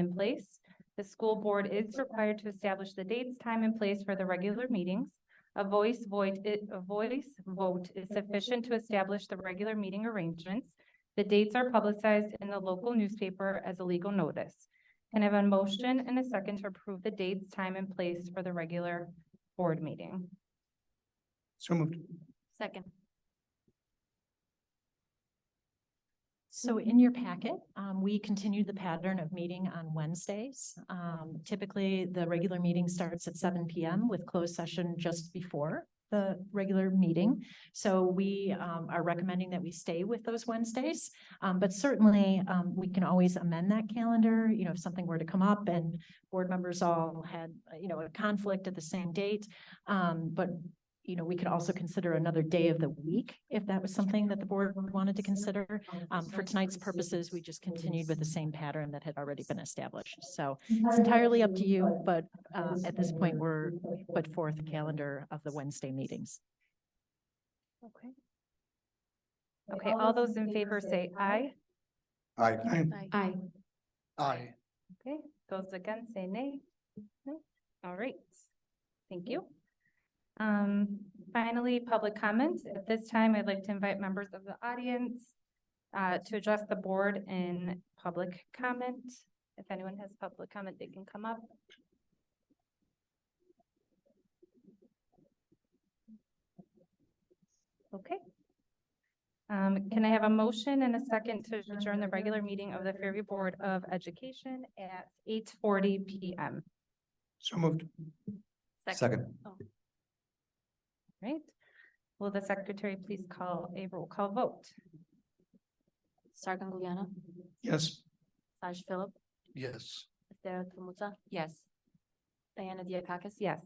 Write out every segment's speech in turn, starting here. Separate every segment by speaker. Speaker 1: in place. The school board is required to establish the dates, time, and place for the regular meetings. A voice vote, i- a voice vote is sufficient to establish the regular meeting arrangements. The dates are publicized in the local newspaper as a legal notice. Can I have a motion and a second to approve the dates, time, and place for the regular board meeting?
Speaker 2: So moved.
Speaker 1: Second.
Speaker 3: So
Speaker 4: Mm-hmm.
Speaker 3: in your packet, um, we continued the pattern of meeting on Wednesdays. Um, typically, the regular meeting starts at seven PM with closed session just before the regular meeting. So we, um, are recommending that we stay with those Wednesdays. Um, but certainly, um, we can always amend that calendar, you know, if something were to come up and board members all had, you know, a conflict at the same date. Um, but, you know, we could also consider another day of the week if that was something that the board wanted to consider. Um, for tonight's purposes, we just continued with the same pattern that had already been established. So it's entirely up to you, but, uh, at this point, we're we put forth a calendar of the Wednesday meetings.
Speaker 1: Okay. Okay, all those in favor say aye.
Speaker 2: Aye.
Speaker 1: Aye.
Speaker 2: Aye.
Speaker 1: Okay, those against say nay. Nay. All right, thank you. Um, finally, public comment. At this time, I'd like to invite members of the audience uh, to address the board in public comment. If anyone has public comment, they can come up. Okay. Um, can I have a motion and a second to adjourn the regular meeting of the Fairview Board of Education at eight forty PM?
Speaker 2: So moved. Second.
Speaker 1: Right? Will the secretary please call a roll call vote?
Speaker 4: Sargon Guliana,
Speaker 2: Yes.
Speaker 4: Saj Philip,
Speaker 2: Yes.
Speaker 4: Esther Tomuta,
Speaker 1: Yes.
Speaker 4: Diana Diakakis,
Speaker 1: Yes.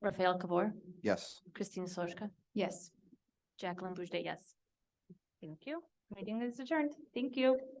Speaker 4: Rafael Kabor,
Speaker 2: Yes.
Speaker 4: Christine Soshka,
Speaker 1: Yes.
Speaker 4: Jacqueline Boujde, yes.
Speaker 1: Thank you. Meeting is adjourned. Thank you.